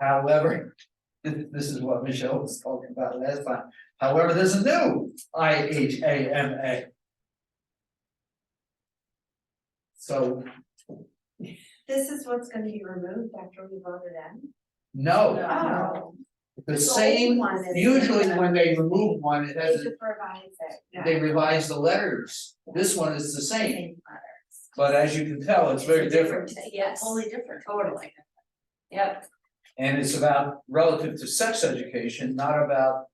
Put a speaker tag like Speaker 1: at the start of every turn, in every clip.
Speaker 1: However, th- this is what Michelle was talking about last time. However, there's a new I H A M A. So,
Speaker 2: This is what's gonna be removed after we voted in?
Speaker 1: no,
Speaker 2: Oh.
Speaker 1: the
Speaker 2: old
Speaker 1: same,
Speaker 2: one is-
Speaker 1: usually when they remove one, it
Speaker 2: They
Speaker 1: has,
Speaker 2: should revise it. yeah.
Speaker 1: they revise the letters. This one is the same,
Speaker 2: letter.
Speaker 1: but as you can tell, it's very different.
Speaker 2: Yes. Totally different. Totally. Yep.
Speaker 1: And it's about relative to sex education, not about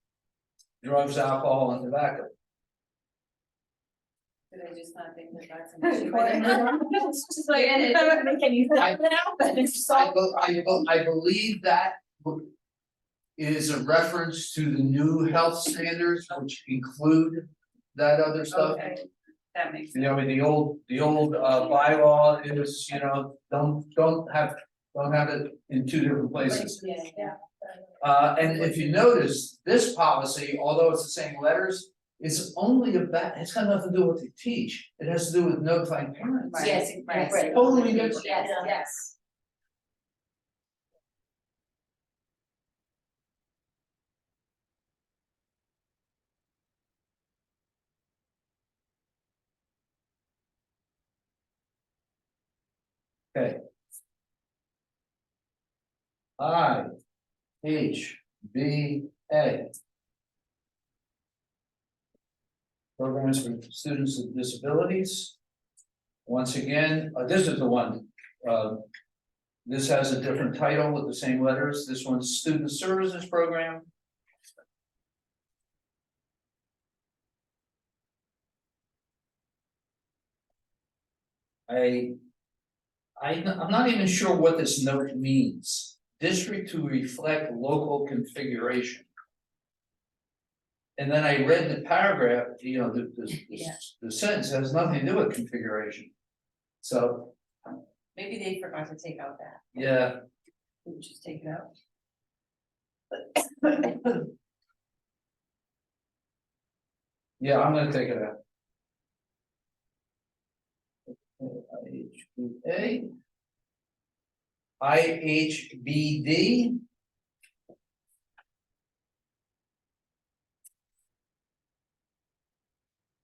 Speaker 1: drugs, alcohol and tobacco.
Speaker 2: Did I just not think that that's
Speaker 3: an issue? Just like, and it doesn't make any sense now, but it's just
Speaker 1: I
Speaker 3: all-
Speaker 1: be- I be- I believe that w- is a reference to the new health standards, which include that other stuff.
Speaker 2: that makes.
Speaker 1: You know, in the old, the old uh bylaw, it was, you know, don't, don't have, don't have it in two different places.
Speaker 2: Yeah.
Speaker 1: Uh, and if you notice, this policy, although it's the same letters, is only about, it's got nothing to do with what they teach. It has to do with notifying parents.
Speaker 2: Right. Yes, right.
Speaker 1: Totally different.
Speaker 2: Yes, yes.
Speaker 1: I H B A. Programs for students with disabilities. Once again, uh, this is the one, uh, This has a different title with the same letters, this one's Student Services Program. I. I, I'm not even sure what this note means district to reflect local configuration. And then I read the paragraph, you know, the, the,
Speaker 2: Yeah.
Speaker 1: the sentence has nothing to do with configuration. So,
Speaker 2: Maybe they forgot to take out that,
Speaker 1: yeah,
Speaker 2: we just take it out.
Speaker 1: yeah, I'm gonna take it out. IHBA. IHBD.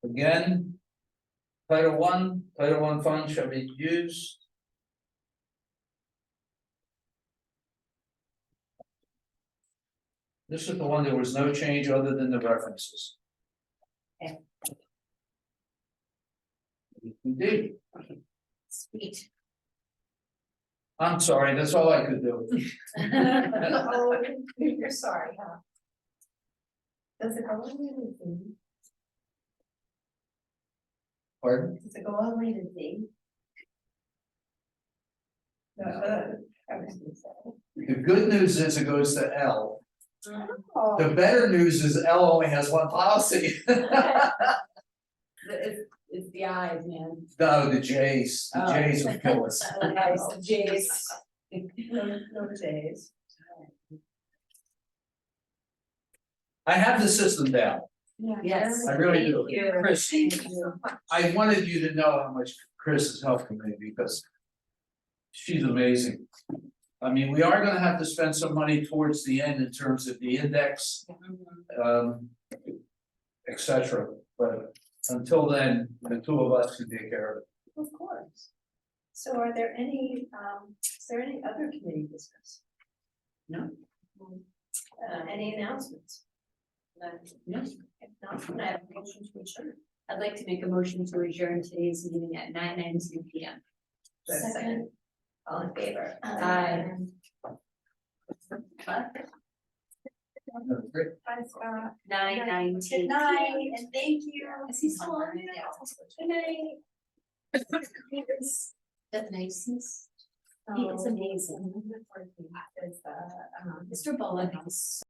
Speaker 1: Again. Title one, title one fund shall be used. This is the one, there was no change other than the references.
Speaker 2: Okay.
Speaker 1: Indeed,
Speaker 2: Sweet.
Speaker 1: I'm sorry, that's all I could do.
Speaker 2: Oh, You're sorry, huh? Does it go on rated Z?
Speaker 1: Pardon?
Speaker 2: Does it go on rated Z? Uh,
Speaker 1: No. The good news is it goes to L.
Speaker 2: oh,
Speaker 1: The better news is L only has one policy.
Speaker 3: It's, it's the eyes, man.
Speaker 1: No, the J's,
Speaker 3: Oh.
Speaker 1: the J's would kill us.
Speaker 3: Eyes, the J's.
Speaker 2: No, no days.
Speaker 1: I have the system down.
Speaker 3: Yes.
Speaker 1: I really do.
Speaker 3: Thank you.
Speaker 1: Chris.
Speaker 3: Thank you.
Speaker 1: I wanted you to know how much Chris is helping me because she's amazing. I mean, we are gonna have to spend some money towards the end in terms of the index, um, et cetera. But until then, the two of us can take care of it.
Speaker 2: Of course. So are there any, um, is there any other committee business?
Speaker 3: No. um,
Speaker 2: Uh, any announcements? None.
Speaker 3: No.
Speaker 2: If not, can I have a motion to adjourn?
Speaker 3: I'd like to make a motion to adjourn today's meeting at nine nineteen P M.
Speaker 2: Second. um, All in favor?
Speaker 3: Aye.
Speaker 1: Great.
Speaker 2: Bye, Scott.
Speaker 3: Nine nineteen.
Speaker 2: Good night, and thank you.
Speaker 3: Is he still on?
Speaker 2: Yeah. Good night.
Speaker 3: That niceness. He
Speaker 2: It's
Speaker 3: is
Speaker 2: amazing.
Speaker 3: Oh. amazing.
Speaker 2: Is, uh, um,
Speaker 3: Mr. Bowen is